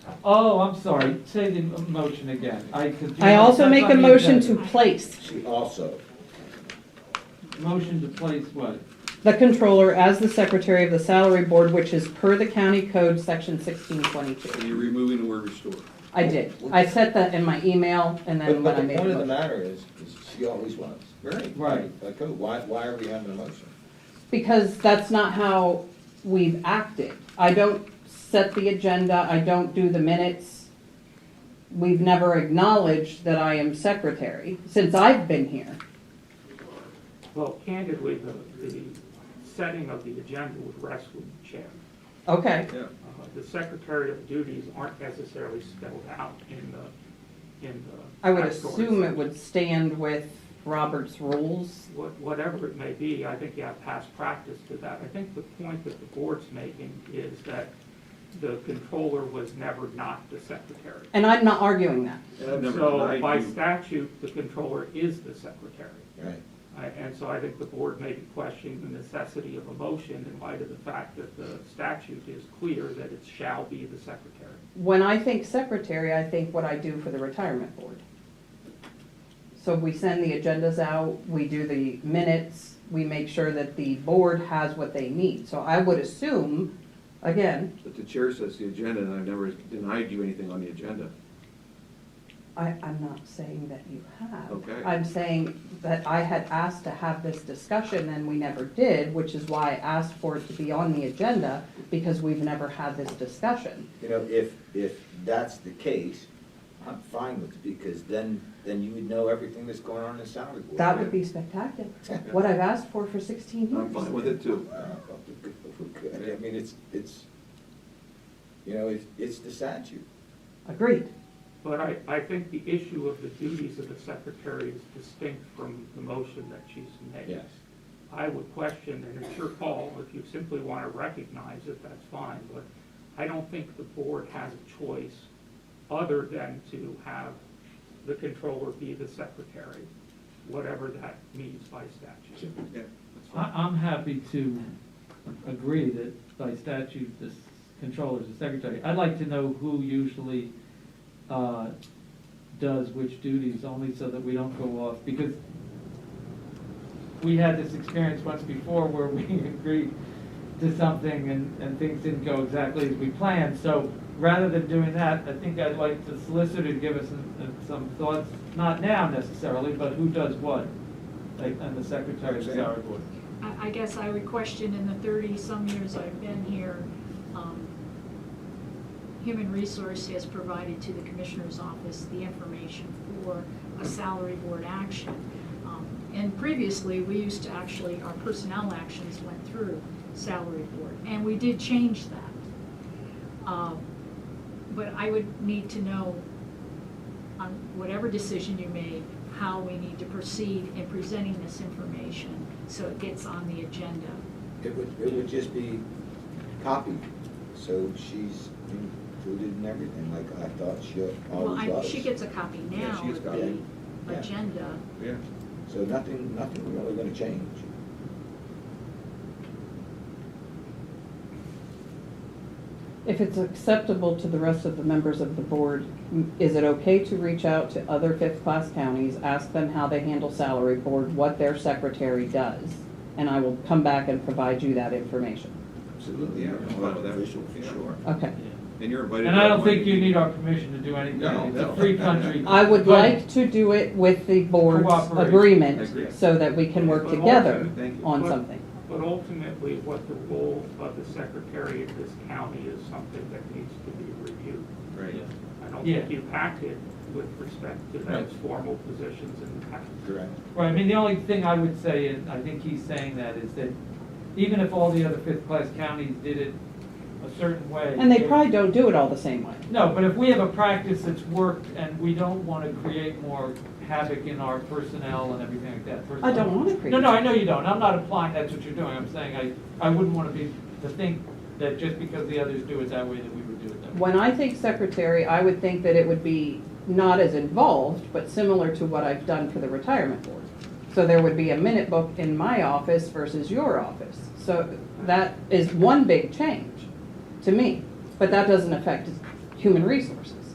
Oh, I'm sorry, say the m- motion again. I could- I also that's make on a the motion to agenda. place She also, Motion to place what? the controller as the secretary of the salary board, which is per the county code, section sixteen twenty-two. And you're removing the word restore. I did. I set that in my email and but, then when but I the made the point of the motion. matter is, is she always was, very. Right. Like, oh, why, why are we having a motion? Because that's not how we've acted. I don't set the agenda, I don't do the minutes. We've never acknowledged that I am secretary since I've been here. Well, candidly, the, the setting of the agenda would rest with the chair. Okay, Yeah. Uh, The secretarial duties aren't necessarily spelled out in the, in the. I would backstory. assume it would stand with Robert's rules. What- Whatever it may be, I think you have past practice to that. I think the point that the board's making is that the controller was never not the secretary. And I'm not arguing that. And I've never So denied by you- statute, the controller is the secretary. Right. I- And so I think the board may be questioning the necessity of a motion in light of the fact that the statute is clear that it shall be the secretary. When I think secretary, I think what I do for the retirement board. So we send the agendas out, we do the minutes, we make sure that the board has what they need. So I would assume, again, But the chair sets the agenda, and I've never denied you anything on the agenda. I, I'm not saying that you have. Okay. I'm saying that I had asked to have this discussion and we never did, which is why I asked for it to be on the agenda, because we've never had this discussion. You know, if, if that's the case, I'm fine with it, because then, then you would know everything that's going on in the salary board. That would be spectacular, what I've asked for for sixteen years. I'm fine with it too. Uh, I mean, it's, it's, you know, it's, it's the statute. Agreed. But I, I think the issue of the duties of the secretary is distinct from the motion that she's made. I would question, and it's your call, if you simply want to recognize it, that's fine, but I don't think the board has a choice other than to have the controller be the secretary, whatever that means by statute. Yeah. I, I'm happy to agree that by statute, this controller is the secretary. I'd like to know who usually, uh, does which duties, only so that we don't go off, because we had this experience once before where we agreed to something and, and things didn't go exactly as we planned. So rather than doing that, I think I'd like the solicitor to give us some- uh, some thoughts, not now necessarily, but who does what, like, and the secretary of the salary board. I, I guess I would question in the thirty-some years I've been here, um, Human Resource has provided to the Commissioner's Office the information for a salary board action. Um, And previously, we used to actually, our personnel actions went through salary board, and we did change that. Um, But I would need to know on whatever decision you make, how we need to proceed in presenting this information so it gets on the agenda. It would, it would just be copied, so she's included in everything, like I thought she Well, always I, was. she gets a copy Yeah, now she gets of a the copy. Yeah. agenda. Yeah. So nothing, nothing really gonna change. If it's acceptable to the rest of the members of the board, m- is it okay to reach out to other fifth-class counties, ask them how they handle salary board, what their secretary does? And I will come back and provide you that information. Absolutely, yeah. I'm fine with that. Official, for Yeah. sure. Okay. And you're invited. And to I don't one think you meeting. need our permission to do anything. No, It's a no. free country. I would But- like to do it with the board's Cooperation. Agree. agreement, so that we can work But together ultimately- Thank you. on but- something. But ultimately, what the role of the secretary of this county is something that needs to be reviewed. Right. Yeah. I don't Yeah. think you've acted with respect to those formal positions in the past. Correct. Right, I mean, the only thing I would say, and I think he's saying that, is that even if all the other fifth-class counties did it a certain way. And they it- probably don't do it all the same way. No, but if we have a practice that's worked and we don't want to create more havoc in our personnel and everything like that. I don't want to create. No, no, I know you don't. I'm not implying that's what you're doing. I'm saying I, I wouldn't want to be, to think that just because the others do it that way, that we would do it that way. When I think secretary, I would think that it would be not as involved, but similar to what I've done for the retirement board. So there would be a minute book in my office versus your office. So that is one big change to me, but that doesn't affect human resources.